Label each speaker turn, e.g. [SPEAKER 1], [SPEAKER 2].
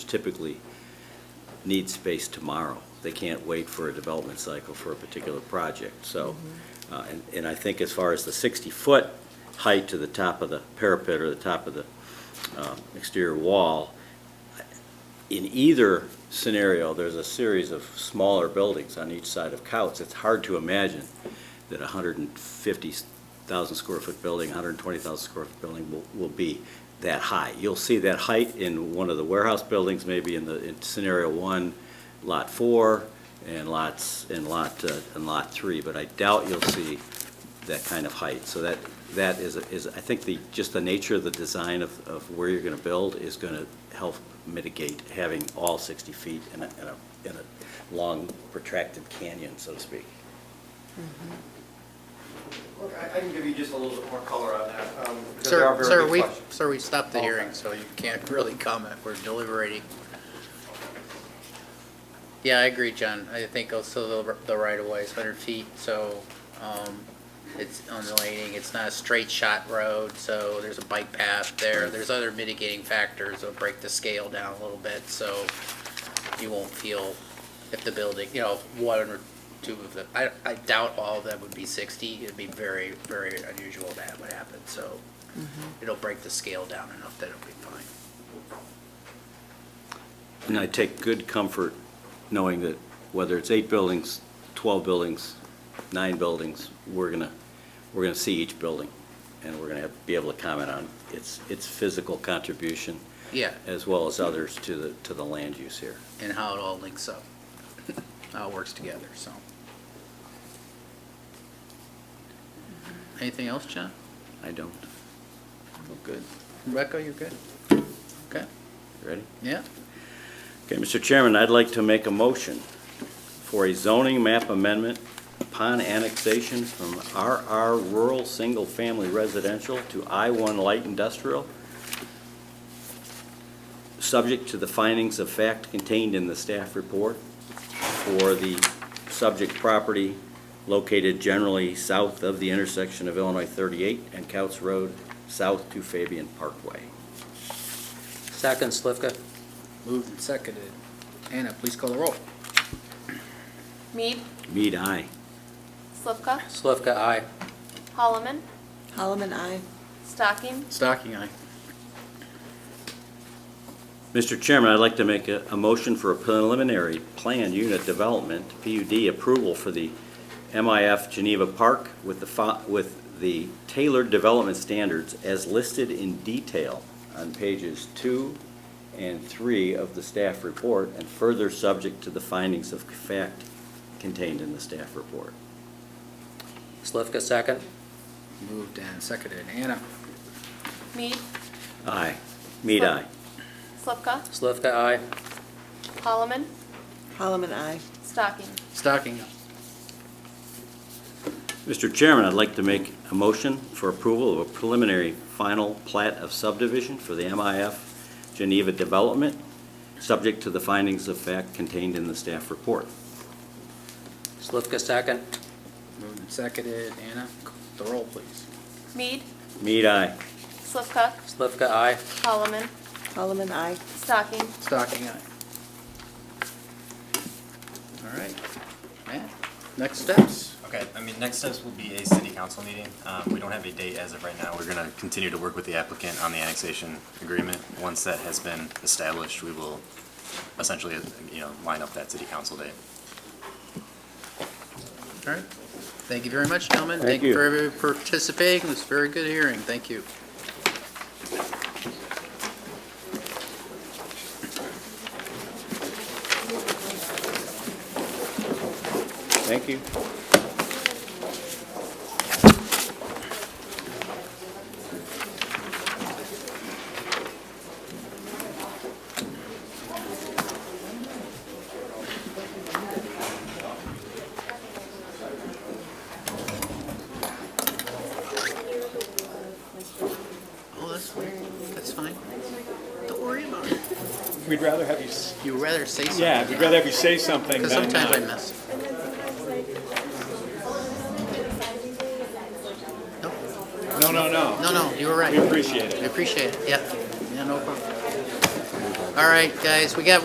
[SPEAKER 1] typically need space tomorrow. They can't wait for a development cycle for a particular project, so. uh, And, and I think as far as the 60-foot height to the top of the parapet or the top of the um, exterior wall, in either scenario, there's a series of smaller buildings on each side of Couts. It's hard to imagine that a hundred and fifty thousand square foot building, hundred and twenty thousand square foot building will, will be that high. You'll see that height in one of the warehouse buildings, maybe in the, in scenario one, lot four, and lots, and lot, uh, and lot three, but I doubt you'll see that kind of height. So that, that is, is, I think the, just the nature of the design of, of where you're gonna build is gonna help mitigate having all sixty feet in a, in a, in a long protracted canyon, so to speak.
[SPEAKER 2] Look, I I can give you just a little bit more color on that, um, because they are
[SPEAKER 3] Sir,
[SPEAKER 2] very
[SPEAKER 3] sir,
[SPEAKER 2] good
[SPEAKER 3] we,
[SPEAKER 2] questions.
[SPEAKER 3] sir, we stopped the
[SPEAKER 2] Okay.
[SPEAKER 3] hearing, so you can't really comment. We're deliberating. Yeah, I agree, John. I think also the, the right of way is hundred feet, so, um, it's undulating. It's not a straight shot road, so there's a bike path there. There's other mitigating factors that'll break the scale down a little bit, so you won't feel if the building, you know, one or two of the, I, I doubt all of them would be sixty. It'd be very, very unusual that would happen, so it'll break the scale down enough that it'll be fine.
[SPEAKER 1] And I take good comfort knowing that whether it's eight buildings, 12 buildings, nine buildings, we're going to, we're going to see each building, and we're going to be able to comment on its, its physical contribution,
[SPEAKER 3] Yeah,
[SPEAKER 1] as well as others to the, to the land use here.
[SPEAKER 3] and how it all links up, how it works together, so. Anything else, John?
[SPEAKER 1] I don't,
[SPEAKER 3] Well, good. Rebecca, you're good? Okay,
[SPEAKER 1] ready?
[SPEAKER 3] yeah,
[SPEAKER 1] Okay, Mr. Chairman, I'd like to make a motion for a zoning map amendment upon annexation from RR Rural Single Family Residential to I-1 Light Industrial, subject to the findings of fact contained in the staff report for the subject property located generally south of the intersection of Illinois 38 and Couts Road, south to Fabian Parkway.
[SPEAKER 4] Second, Slivka.
[SPEAKER 3] moved and seconded. Anna, please call the roll.
[SPEAKER 5] Mead,
[SPEAKER 1] Mead, aye.
[SPEAKER 5] Slivka,
[SPEAKER 4] Slivka, aye.
[SPEAKER 5] Holloman,
[SPEAKER 6] Holloman, I.
[SPEAKER 5] Stocking,
[SPEAKER 3] Stocking eye.
[SPEAKER 1] Mr. Chairman, I'd like to make a, a motion for a preliminary plan unit development, PUD approval for the MIF Geneva Park with the, fo- with the tailored development standards as listed in detail on pages two and three of the staff report, and further subject to the findings of fact contained in the staff report.
[SPEAKER 4] Slivka, second.
[SPEAKER 3] Moved and seconded. Anna,
[SPEAKER 5] Mead,
[SPEAKER 1] Aye. Mead, aye.
[SPEAKER 5] Slivka,
[SPEAKER 4] Slivka, aye.
[SPEAKER 5] Holloman,
[SPEAKER 6] Holloman, I.
[SPEAKER 5] Stocking,
[SPEAKER 3] stocking eye.
[SPEAKER 1] Mr. Chairman, I'd like to make a motion for approval of a preliminary final plat of subdivision for the MIF Geneva Development, subject to the findings of fact contained in the staff report.
[SPEAKER 4] Slivka, second.
[SPEAKER 3] moved and seconded. Anna, call the roll, please.
[SPEAKER 5] Mead,
[SPEAKER 1] Mead, aye.
[SPEAKER 5] Slivka,
[SPEAKER 4] Slivka, aye.
[SPEAKER 5] Holloman,
[SPEAKER 6] Holloman, I.
[SPEAKER 5] Stocking,
[SPEAKER 3] Stocking eye. All right, Matt, next steps.
[SPEAKER 7] Okay, I mean, next steps will be a city council meeting. Um, We don't have a date as of right now. We're going to continue to work with the applicant on the annexation agreement. Once that has been established, we will essentially, you know, line up that city council date.
[SPEAKER 3] All right. Thank you very much, gentlemen.
[SPEAKER 1] Thank
[SPEAKER 3] Thank you
[SPEAKER 1] you.
[SPEAKER 3] for everybody participating. It was a very good hearing. Thank you.
[SPEAKER 1] Thank you.
[SPEAKER 3] Oh, that's weird. That's fine. Don't worry about it.
[SPEAKER 8] We'd rather have you, s-
[SPEAKER 3] You rather say something.
[SPEAKER 8] yeah, we'd rather have you say something than uh,
[SPEAKER 3] Because sometimes I
[SPEAKER 8] not.
[SPEAKER 3] miss.
[SPEAKER 8] No, no, no.
[SPEAKER 3] No, no, you were right.
[SPEAKER 8] We appreciate it.
[SPEAKER 3] We appreciate it. Yeah. Yeah, no problem. All right, guys, we got